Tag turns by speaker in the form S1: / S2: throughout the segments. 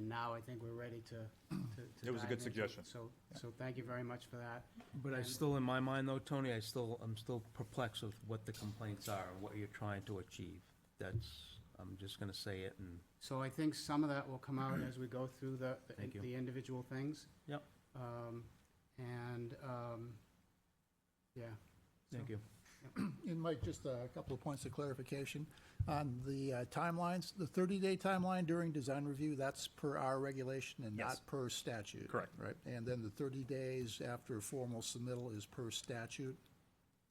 S1: now I think we're ready to, to. to
S2: It was a
S1: dive
S2: good
S1: into
S2: suggestion.
S1: So, so thank you very much for that.
S3: But I still, in my mind though, Tony, I still, I'm still perplexed with what the complaints are, and what you're trying to achieve. That's, I'm just gonna say it and,
S1: So I think some of that will come out as we go through the, the-
S3: Thank you.
S1: the individual things.
S3: Yep.
S1: Um, and, um, yeah.
S3: thank you.
S4: And Mike, just a couple of points of clarification. On the uh, timelines, the 30-day timeline during design review, that's per our regulation and
S2: Yes.
S4: not per statute.
S2: Correct.
S4: Right, and then the 30 days after formal submittal is per statute.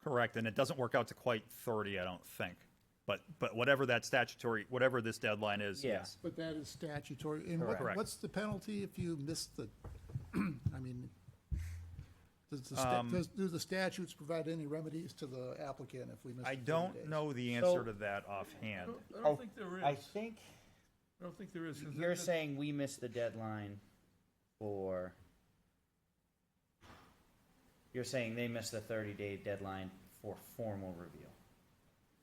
S2: Correct, and it doesn't work out to quite thirty, I don't think. But, but whatever that statutory, whatever this deadline is,
S5: Yeah.
S2: yes.
S4: But that is statutory. And what-
S2: Correct.
S4: what's the penalty if you miss the, I mean, does the, sta-
S2: Um,
S4: does- do the statutes provide any remedies to the applicant if we miss
S2: I
S4: the 30
S2: don't
S4: days?
S2: know the answer
S5: So-
S2: to that offhand.
S6: I don't think there is.
S5: Oh, I
S6: I
S5: think
S6: don't think there is. 'cause
S5: you're
S6: that-
S5: saying we missed the deadline for. You're saying they missed the thirty day deadline for formal review.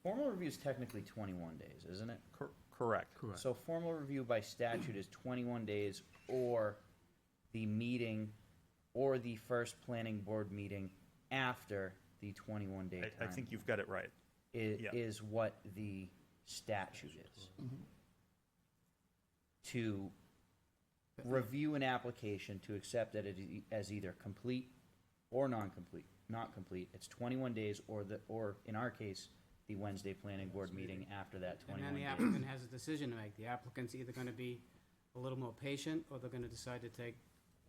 S5: Formal review is technically twenty-one days, isn't it?
S2: Cor- Correct.
S3: Correct.
S5: So formal review by statute is twenty-one days or the meeting or the first planning board meeting after the twenty-one day
S2: I, I
S5: time
S2: think you've got it right.
S5: is,
S2: yeah.
S5: is what the statute is. To review an application to accept that it i- as either complete or non-complete, not complete, it's twenty-one days or the, or in our case, the Wednesday planning board meeting after that
S1: And then
S5: twenty-one
S1: the
S5: days.
S1: applicant has a decision to make. The applicant's either gonna be a little more patient, or they're gonna decide to take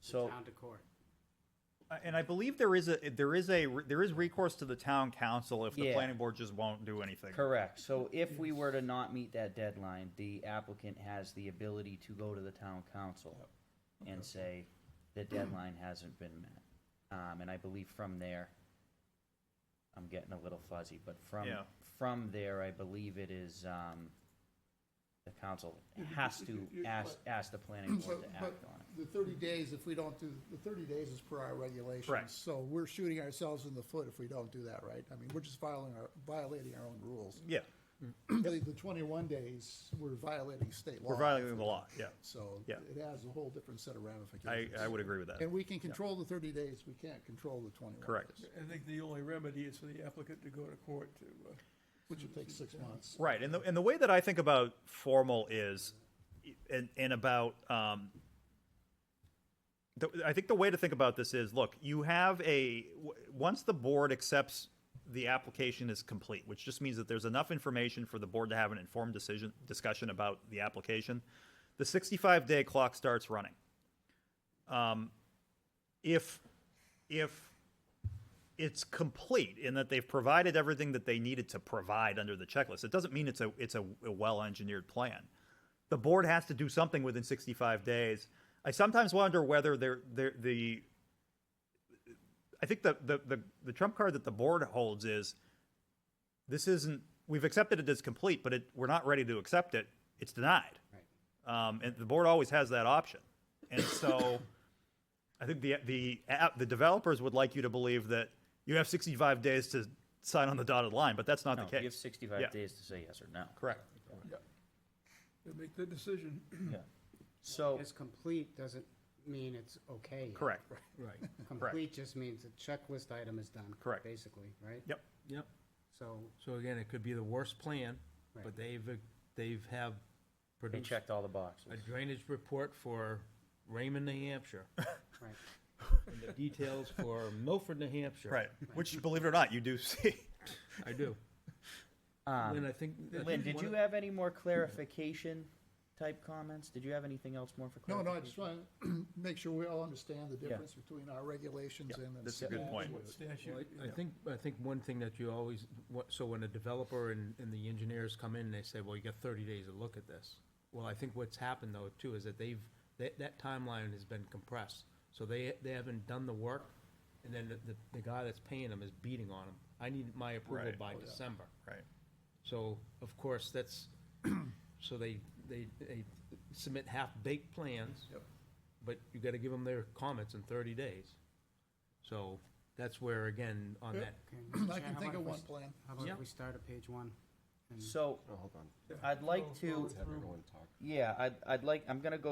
S1: the
S5: So,
S1: town to court.
S2: Uh, And I believe there is a, there is a, there is recourse to the town council if the
S5: Yeah.
S2: planning board just won't do anything.
S5: correct, so if we were to not meet that deadline, the applicant has the ability to go to the town council and say, the deadline hasn't been met. Um, and I believe from there, I'm getting a little fuzzy, but from,
S2: Yeah.
S5: from there, I believe it is, um, the council has to ask, ask the planning board
S4: But,
S5: to act
S4: but
S5: on it.
S4: the thirty days, if we don't do, the thirty days is per our regulations.
S2: Correct.
S4: So we're shooting ourselves in the foot if we don't do that, right? I mean, we're just violating our, violating our own rules.
S2: Yeah,
S4: Really, the twenty-one days, we're violating state law.
S2: we're violating the law, yeah.
S4: So
S2: Yeah.
S4: it has a whole different set of
S2: I,
S4: ramifications.
S2: I would agree with that.
S4: And we can control the thirty days, we can't control the twenty-one.
S2: Correct.
S4: days,
S6: I think the only remedy is for the applicant to go to court to, uh,
S4: Which would take six months.
S2: Right, and the, and the way that I think about formal is, and, and about, um, the, I think the way to think about this is, look, you have a, w- once the board accepts the application is complete, which just means that there's enough information for the board to have an informed decision, discussion about the application, the sixty-five day clock starts running. Um, if, if it's complete in that they've provided everything that they needed to provide under the checklist. It doesn't mean it's a it's a, a well engineered plan. The board has to do something within 65 days. I sometimes wonder whether they're, they're the I think the, the the the trump card that the board holds is this isn't we've accepted it as complete, but it, we're not ready to accept it. It's denied, um, and the board always has that option. And so. I think the the app, the developers would like you to believe that you have 65 days to sign on the dotted line, but that's not
S5: No,
S2: the case.
S5: you have
S2: Yeah.
S5: sixty-five days to say yes or no.
S2: Correct.
S6: to make the decision.
S5: So,
S1: It's complete doesn't mean it's okay. yet.
S2: Correct.
S3: Right,
S1: Complete just means the checklist item is done.
S2: Correct.
S1: Basically, right?
S2: Yep.
S3: yep.
S1: So,
S3: So again, it could be the worst plan,
S1: Right.
S3: but they've, they've have
S5: they
S3: produced
S5: checked all the boxes.
S3: a drainage report for Raymond, New Hampshire,
S1: right.
S3: and the details for Milford, New Hampshire.
S2: Right. Which, believe it or not, you do see.
S3: I do.
S5: Um,
S3: Lynn, I think. I think
S5: Lynn, did
S3: one
S5: you
S3: of-
S5: have any more clarification type comments? Did you have anything else more for
S4: No,
S5: clarification?
S4: no, I just want to make sure we all understand the difference between our regulations
S2: Yeah,
S4: and. the
S2: that's a good
S4: statute.
S2: point.
S6: What statute?
S3: Well, I- I think, I think one thing that you always, what- so when a developer and, and the engineers come in, they say, well, you got thirty days to look at this. Well, I think what's happened though too is that they've, that, that timeline has been compressed. So they, they haven't done the work and then the, the, the guy that's paying them is beating on them. I need my approval
S2: Right.
S3: by
S6: Oh,
S3: December.
S2: Right.
S3: So, of course, that's, so they, they, they submit half-baked plans. But you gotta give them their comments in thirty days. So, that's where, again, on that,
S1: Okay, Mr. Chair,
S4: I
S1: how
S4: can think
S1: about
S4: of
S1: if we
S4: one
S1: s-
S4: plan.
S1: How about
S3: Yeah.
S1: if we start at page one?
S5: So,
S7: Oh, hold on.
S6: Yeah.
S5: I'd like
S6: Go-
S5: to-
S6: go
S7: Let's have
S6: through.
S7: everyone talk.
S5: yeah, I'd, I'd like, I'm gonna go